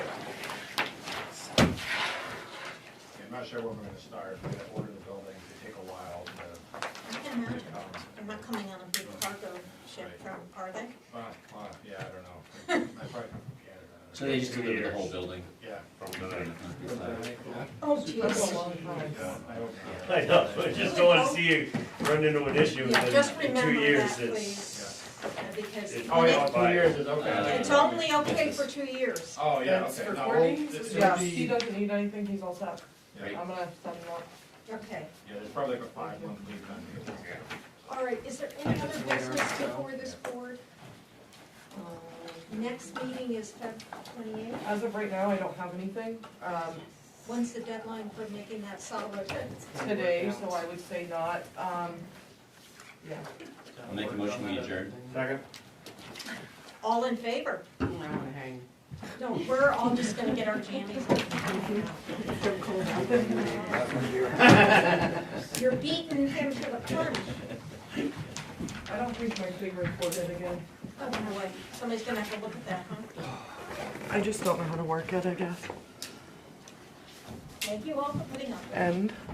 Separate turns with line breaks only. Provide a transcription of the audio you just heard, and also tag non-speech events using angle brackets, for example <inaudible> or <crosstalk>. sure when we're gonna start, we're gonna order the building, it take a while to,
I can imagine, they're not coming on a big cargo ship from, are they?
uh, uh, yeah, I don't know. I probably from Canada.
So they just delivered the whole building?
Yeah.
From the-
Oh, jeez.
Yeah, I hope not.
I know, I just don't wanna see you run into an issue and
Yeah, just
then in two
remember that,
years it's.
please, Uh, because
it-
Oh, yeah,
Nick-
two years is okay.
Uh, it's only okay for two years.
Oh, yeah,
That's
okay.
for
No,
four
we'll-
days?
it's
Yeah,
gonna
he
be- Yeah,
doesn't need anything, he's all set. I'm
Right.
gonna send him up.
Okay,
there's probably like a five month lead time. to get this going.
all right, is there any other business before this board? Next meeting is Feb twenty-eighth,
Um, As of right now, I don't have anything, um,
when's the deadline for making that solid?
today, so I would say not, um, yeah.
I'll make a motion, we adjourn.
Second.
All in favor?
I'm gonna hang.
No, we're all just gonna get our jammies. <laughs> You're beating him to the punch.
I don't think my finger recorded again.
Oh, no way, somebody's gonna have to look at that, huh?
I just don't know how to work it, I guess.
Thank you all for putting up with it.
And